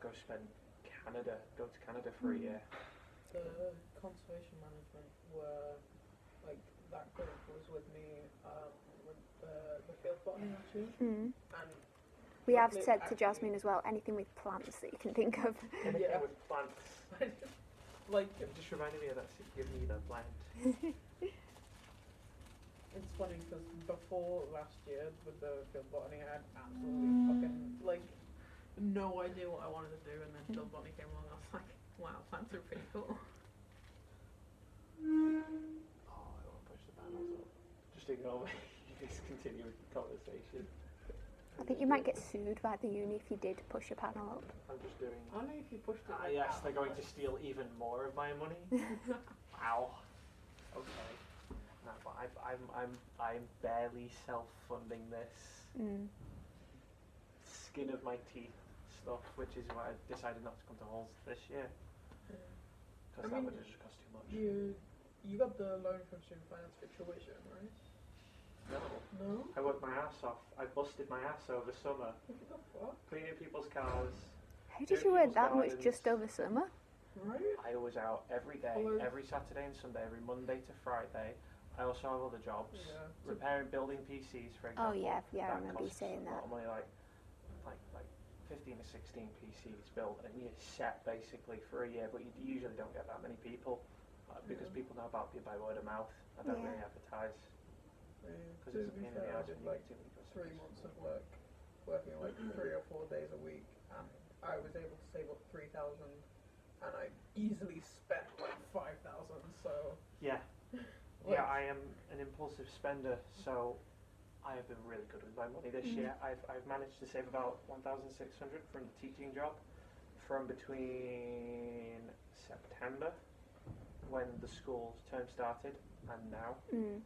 go spend Canada, go to Canada for a year. The conservation management were like that group was with me um, with the, the field botany too, Mm. and We have Lovely, said to actually. Jasmine as well, anything with plants that you can think of. Anything Yeah. with plants. like It just reminded me of that. se- Give me Oh, that plant. it's funny because before last year with the field botany, I had absolutely fucking like no idea what I wanted to do, and then field botany came along, and I was like, wow, plants are pretty cool. Oh, I want to push the panels up. Just ignore me. just continue with the conversation. I think you might get sued by the uni if you did push a panel up. I'm just doing. I don't know if you pushed it. Ah, like yes, that, they're going but- to steal even more of my money. Ow. Okay. No, but I've, I'm, I'm, I'm barely self-funding this Mm. skin of my teeth stuff, which is why I decided not to come to halls this year Yeah. I because that mean, would have just cost too much. You you got the loan from student finance for tuition, right? No. No. I worked my ass off. I busted my ass over summer, What the fuck? cleaning people's cars. How Two did you earn people's that much gardens. just over summer? Right? I was out every day, Hello. every Saturday and Sunday, every Monday to Friday. I also have other jobs, Yeah. repairing building PCs, for example. Oh yeah, yeah, I that remember you costs saying a lot that. of money, like, like, like 15 to 16 PCs built, and you're set basically for a year, but you usually don't get that many people uh, because Yeah. people know about you by word of mouth. I don't Yeah. really advertise because To it's a be pain in the fair, I ass did when you like get too many customers. three months of work, Mm-hmm. working like three or four days a week, and I was able to save up three thousand, and I easily spent like five thousand. So Yeah, like, yeah, I am an impulsive spender, so I have been really good with my money this Mm. year. I've, I've managed to save about 1,600 from the teaching job from between September, when the school's term started, and now. Mm.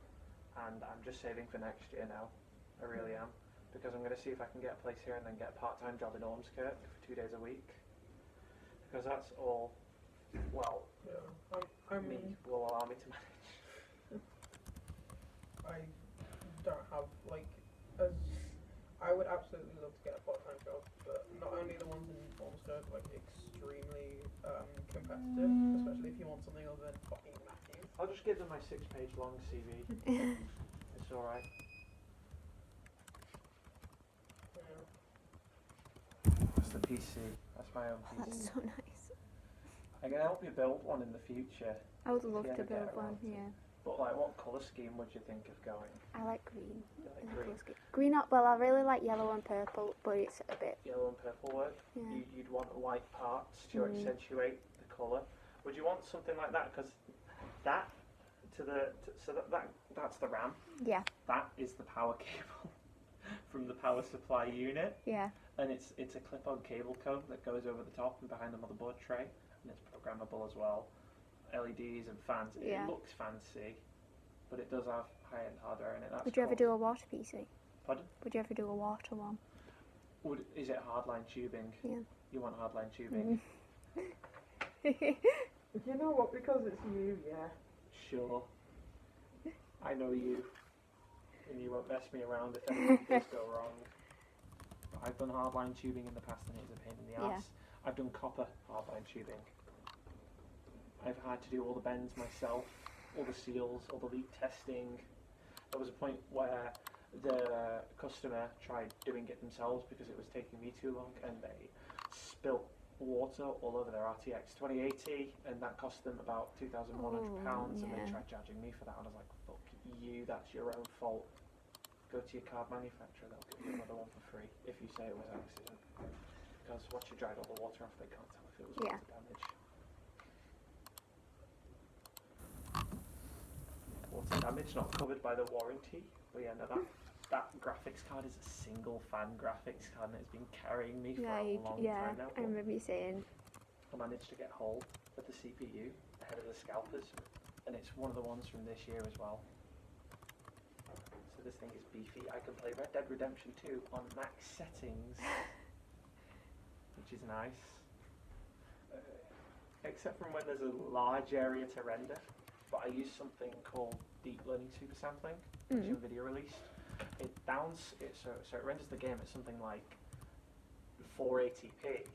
and I'm just saving for next year now. I really am because I'm going to see if I can get a place here and then get a part-time job in Ormskirk for two days a week because that's all. Well, yeah, I, I me mean, will allow me to manage. I don't have like as I would absolutely love to get a part-time job, but not only the ones in Ormskirk are like extremely um, competitive, especially if you want something other than fucking Matthews. I'll just give them my six-page long CV. it's all right. That's the PC. That's my own Oh, That's PC. so nice. I can help you build one in the future, I would love Yeah, to get build around one. to it. Yeah, but like, what colour scheme would you think of going? I like green. You I Like think green, it's good. Green up. Well, I really like yellow and purple, but it's a bit. mm. yellow, and purple work. Yeah. You, you'd want light parts to Mm. accentuate the colour. Would you want something like that? Because that to the t so that, that that's the RAM. Yeah. That is the power cable from the power supply unit, Yeah. and it's it's a clip-on cable cone that goes over the top and behind the motherboard tray, and it's programmable as well. LEDs and fans. Yeah. It looks fancy, but it does have high-end hardware in it. That's Would you ever cool. do a water PC? Pardon? Would you ever do a water one? Would, is it hardline tubing? Yeah. You want hardline tubing? Mm. You know what? Because it's you, yeah. Sure. I know you. And you won't mess me around if anything does go wrong. I've done hardline tubing in the past and it is a pain in the Yeah. ass. I've done copper hardline tubing. I've had to do all the bends myself, all the seals, all the leak testing. There was a point where the customer tried doing it themselves because it was taking me too long and they spilt water all over their RTX 2080 and that cost them about £2,100 and Oh, they yeah. tried charging me for that and I was like, fuck you, that's your own fault. Go to your card manufacturer, they'll give you another one for free if you say it was an accident. Because once you dried all the water off, they can't tell if it was Yeah. water damage. Water damage not covered by the warranty. But yeah, no, that, that graphics card is a single fan graphics card and it's been carrying me for yeah. a you- long Yeah. time now. I remember you saying. I managed to get hold of the CPU ahead of the scalpers, and it's one of the ones from this year as well. So this thing is beefy. I can play Red Dead Redemption 2 on max settings, which is nice. Uh, except from when there's a large area to render, but I use something called deep learning super sampling, which Mm. NVIDIA released. It downs it so so it renders the game at something like 480p